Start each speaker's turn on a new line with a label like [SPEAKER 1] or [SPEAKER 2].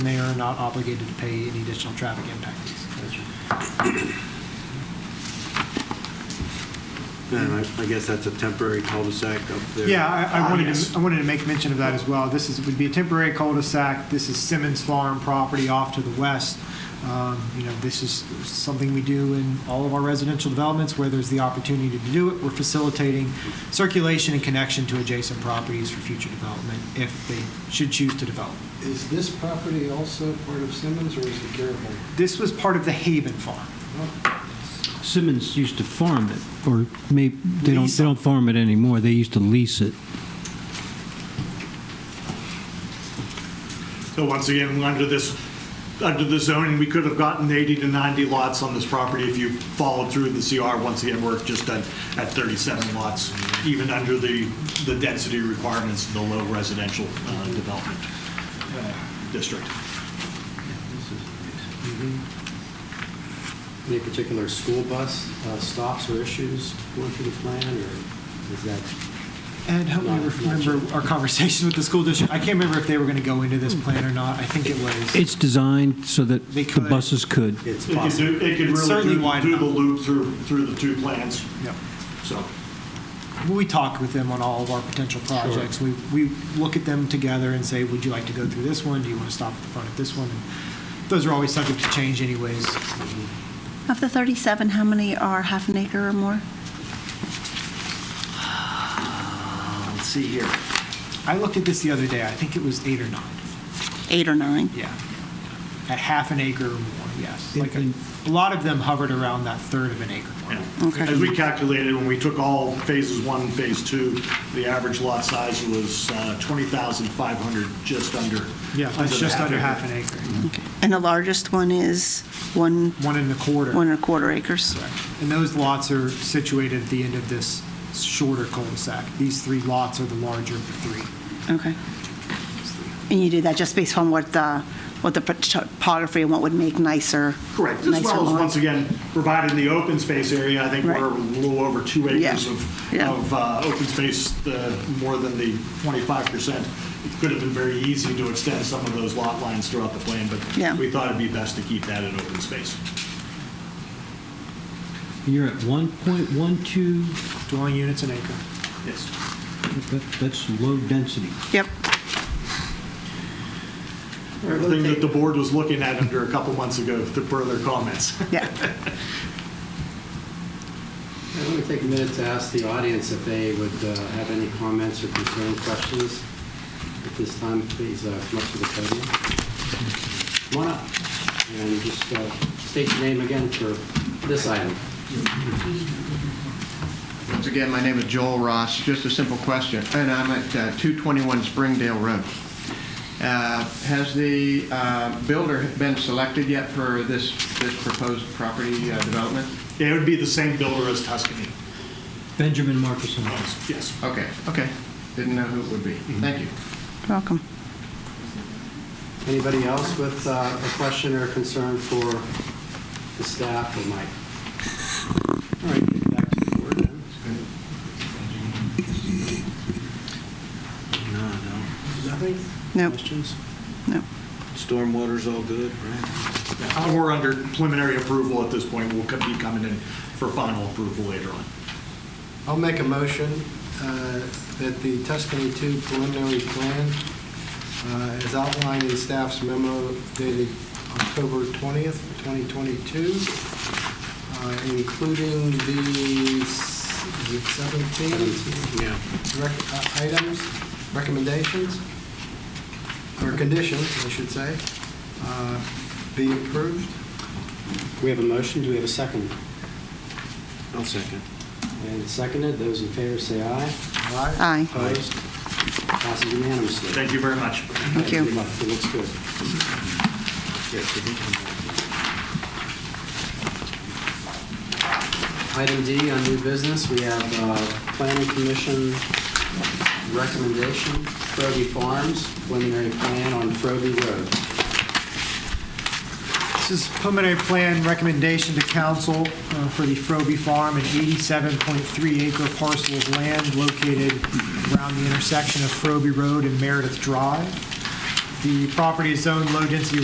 [SPEAKER 1] not obligated to pay any additional traffic impact fees.
[SPEAKER 2] And I, I guess that's a temporary cul-de-sac up there.
[SPEAKER 1] Yeah, I, I wanted
[SPEAKER 3] yes.
[SPEAKER 1] to, I wanted to make mention of that as well. This is, would be a temporary cul-de-sac. This is Simmons Farm property off to the west. Um, You know, this is something we do in all of our residential developments where there's the opportunity to do it. We're facilitating circulation and connection to adjacent properties for future development if they should choose to develop.
[SPEAKER 4] Is this property also part of Simmons, or is it Garibaldi?
[SPEAKER 1] This was part of the Haven Farm.
[SPEAKER 5] Simmons used to farm it, or maybe, they don't,
[SPEAKER 1] Lease
[SPEAKER 5] they don't farm it anymore, they used to lease it.
[SPEAKER 3] So once again, under this, under the zoning, we could have gotten 80 to 90 lots on this property if you followed through the CR. Once again, we're just at, at 37 lots, even under the, the density requirements of the low residential uh, development uh, district.
[SPEAKER 4] Any particular school bus uh, stops or issues going through the plan, or is that?
[SPEAKER 1] And help me
[SPEAKER 4] Not- not
[SPEAKER 1] remember
[SPEAKER 4] sure.
[SPEAKER 1] our conversation with the school district. I can't remember if they were going to go into this plan or not. I think it was.
[SPEAKER 5] It's designed so that
[SPEAKER 1] They
[SPEAKER 5] the
[SPEAKER 1] could.
[SPEAKER 5] buses could.
[SPEAKER 4] It's
[SPEAKER 3] It could do,
[SPEAKER 4] possible.
[SPEAKER 3] it could
[SPEAKER 1] It's certainly
[SPEAKER 3] really do-
[SPEAKER 1] wide
[SPEAKER 3] do the
[SPEAKER 1] enough.
[SPEAKER 3] loop through, through the two plans,
[SPEAKER 1] Yep.
[SPEAKER 3] so.
[SPEAKER 1] We talk with them on all of our potential projects. We, we look at them together and say, would you like to go through this one? Do you want to stop at the front of this one? And Those are always subject to change anyways.
[SPEAKER 6] Of the 37, how many are half an acre or more?
[SPEAKER 3] Let's see here.
[SPEAKER 1] I looked at this the other day. I think it was eight or nine.
[SPEAKER 6] Eight or nine?
[SPEAKER 1] Yeah. At half an acre or more, yes. Like a,
[SPEAKER 5] Mhm.
[SPEAKER 1] a lot of them hovered around that third of an acre.
[SPEAKER 3] Yeah.
[SPEAKER 6] Okay.
[SPEAKER 3] As we calculated, when we took all phases one, and phase two, the average lot size was uh, 20,500, just under.
[SPEAKER 1] Yeah,
[SPEAKER 3] the
[SPEAKER 1] it's just under half an
[SPEAKER 3] acre.
[SPEAKER 1] acre.
[SPEAKER 6] Okay. And the largest one is one,
[SPEAKER 1] One and a quarter.
[SPEAKER 6] one and a quarter acres?
[SPEAKER 1] And those lots are situated at the end of this shorter cul-de-sac. These three lots are the larger of the three.
[SPEAKER 6] Okay. And you do that just based on what the, what the topography and what would make nicer?
[SPEAKER 3] Correct, as
[SPEAKER 6] nicer
[SPEAKER 3] well as,
[SPEAKER 6] lawns?
[SPEAKER 3] once again, providing the open space area, I think
[SPEAKER 6] Right.
[SPEAKER 3] we're a little over two
[SPEAKER 6] Yeah,
[SPEAKER 3] acres of,
[SPEAKER 6] yeah.
[SPEAKER 3] of uh, open space, uh, more than the 25%. It could have been very easy to extend some of those lot lines throughout the plan,
[SPEAKER 6] Yeah.
[SPEAKER 3] but we thought it'd be best to keep that in open space.
[SPEAKER 5] You're at 1.12,
[SPEAKER 1] Dwelling units an acre.
[SPEAKER 3] Yes.
[SPEAKER 5] that- that's low density.
[SPEAKER 6] Yep.
[SPEAKER 3] Everything that the board was looking at under a couple months ago, to further comments.
[SPEAKER 6] Yeah.
[SPEAKER 4] I want to take a minute to ask the audience if they would uh, have any comments or concern questions. At this time, please uh, come up to the podium. Come on up, and just uh, state your name again for this item.
[SPEAKER 7] Once again, my name is Joel Ross. Just a simple question, and I'm at uh, 221 Springdale Road. Uh, Has the uh, builder been selected yet for this this proposed property uh, development?
[SPEAKER 3] It would be the same builder as Tuscany.
[SPEAKER 5] Benjamin Marcus.
[SPEAKER 3] Yes.
[SPEAKER 7] Okay, okay. Didn't know who it would be. Thank you.
[SPEAKER 6] Welcome.
[SPEAKER 4] Anybody else with uh, a question or concern for the staff or Mike? All right, back to the board then.
[SPEAKER 2] No, no.
[SPEAKER 4] Nothing?
[SPEAKER 6] Nope.
[SPEAKER 4] Questions?
[SPEAKER 6] No.
[SPEAKER 2] Stormwater's all good, right?
[SPEAKER 3] Uh, We're under preliminary approval at this point. We'll be coming in for final approval later on.
[SPEAKER 4] I'll make a motion uh, that the Tuscany 2 preliminary plan, uh, as outlined in staff's memo dated October 20th, 2022, uh, including the s- is it 17 Rec- uh, items, recommendations, or conditions, I should say, uh, be approved. We have a motion, do we have a second?
[SPEAKER 2] I'll second.
[SPEAKER 4] And seconded, those in favor say aye.
[SPEAKER 6] Aye.
[SPEAKER 4] Opposed? Passes unanimously.
[SPEAKER 3] Thank you very much.
[SPEAKER 6] Thank you.
[SPEAKER 4] Good luck. It looks good.
[SPEAKER 2] Yes, I think I'm-
[SPEAKER 4] Item D on new business, we have uh, Planning Commission recommendation, Frobe Farms, preliminary plan on Frobe Road.
[SPEAKER 1] This is preliminary plan recommendation to council uh, for the Frobe Farm, an 87.3 acre parcel of land located around the intersection of Frobe Road and Meredith Drive. The property is zoned low-density